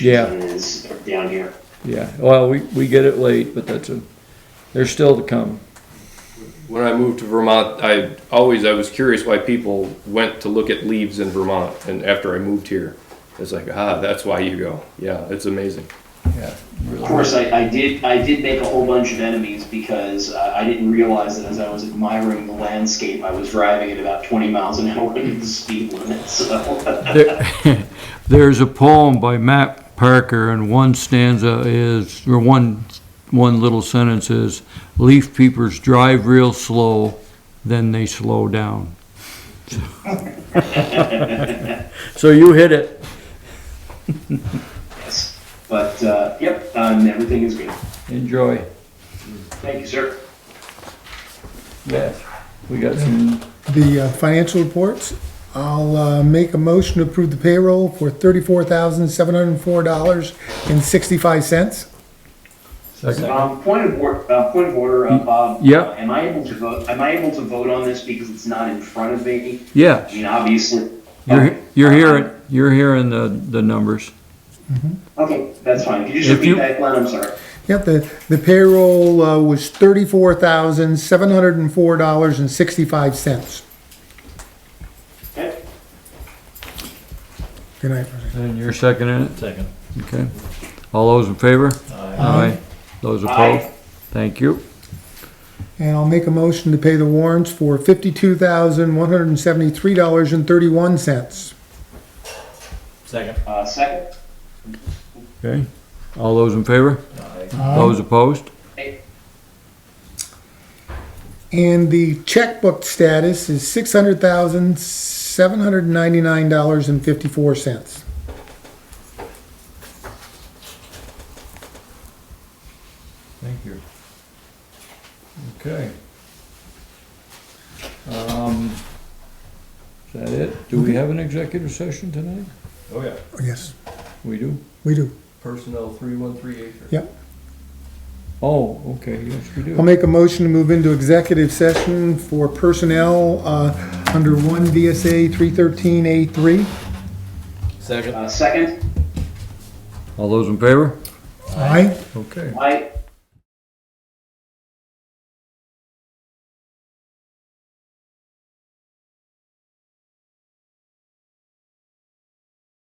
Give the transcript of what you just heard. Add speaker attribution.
Speaker 1: Yeah,
Speaker 2: is down here.
Speaker 1: yeah. Well, we, we get it late, but that's a, they're still to come.
Speaker 3: When I moved to Vermont, I always I was curious why people went to look at leaves in Vermont, and after I moved here, it's like ah, that's why you go. Yeah, it's amazing.
Speaker 1: Yeah.
Speaker 2: Of course, I, I did I did make a whole bunch of enemies because uh, I didn't realize that as I was admiring the landscape, I was driving at about 20 miles an hour into the speed limit. So
Speaker 4: There- There's a poem by Matt Parker, and one stanza is, or one, one little sentence is, "Leaf peepers drive real slow, then they slow down."
Speaker 1: So you hit it.
Speaker 2: yes, but uh, yep, um, everything is good.
Speaker 1: Enjoy.
Speaker 2: Thank you, sir.
Speaker 1: Yes. We got some,
Speaker 5: the uh, financial reports. I'll uh, make a motion to approve the payroll for thirty-four thousand, seven hundred and four dollars and sixty-five cents.
Speaker 2: Um, point of order, uh, point of order,
Speaker 4: Mm,
Speaker 2: uh, Bob.
Speaker 4: yeah.
Speaker 2: uh, Am I able to vote? Am I able to vote on this because it's not in front of me? I
Speaker 4: Yeah,
Speaker 2: mean, obviously. Um, uh,
Speaker 4: you're, you're hearing, you're hearing the, the numbers.
Speaker 2: Okay, that's fine. Could you just
Speaker 4: If
Speaker 2: repeat
Speaker 4: you-
Speaker 2: that, Glenn? I'm sorry.
Speaker 5: Yep, the, the payroll uh, was thirty-four thousand, seven hundred and four dollars and sixty-five cents.
Speaker 2: Okay.
Speaker 5: Good night. Roseanne.
Speaker 4: And you're seconding it?
Speaker 6: Second.
Speaker 4: Okay. All those in favor? Aye. Those opposed?
Speaker 2: Aye.
Speaker 4: Thank you.
Speaker 5: And I'll make a motion to pay the warrants for fifty-two thousand, one hundred and seventy-three dollars and thirty-one cents.
Speaker 6: Second.
Speaker 2: Uh, second.
Speaker 4: Okay. All those in favor?
Speaker 6: Aye.
Speaker 5: Uh-huh.
Speaker 4: Those opposed?
Speaker 5: And the checkbook status is six hundred thousand, seven hundred and ninety-nine dollars and fifty-four cents.
Speaker 1: thank you. Okay. Um, is that it? Do we have an executive session tonight?
Speaker 3: Oh yeah,
Speaker 5: Yes,
Speaker 1: We do?
Speaker 5: we do.
Speaker 3: personnel three one three eight.
Speaker 1: Oh, okay, yes, we
Speaker 5: I'll
Speaker 1: do.
Speaker 5: make a motion to move into executive session for personnel uh, under 1 VSA 313A3.
Speaker 6: Second.
Speaker 2: Uh, second.
Speaker 4: All those in favor?
Speaker 5: Aye.
Speaker 1: Okay.
Speaker 2: Aye.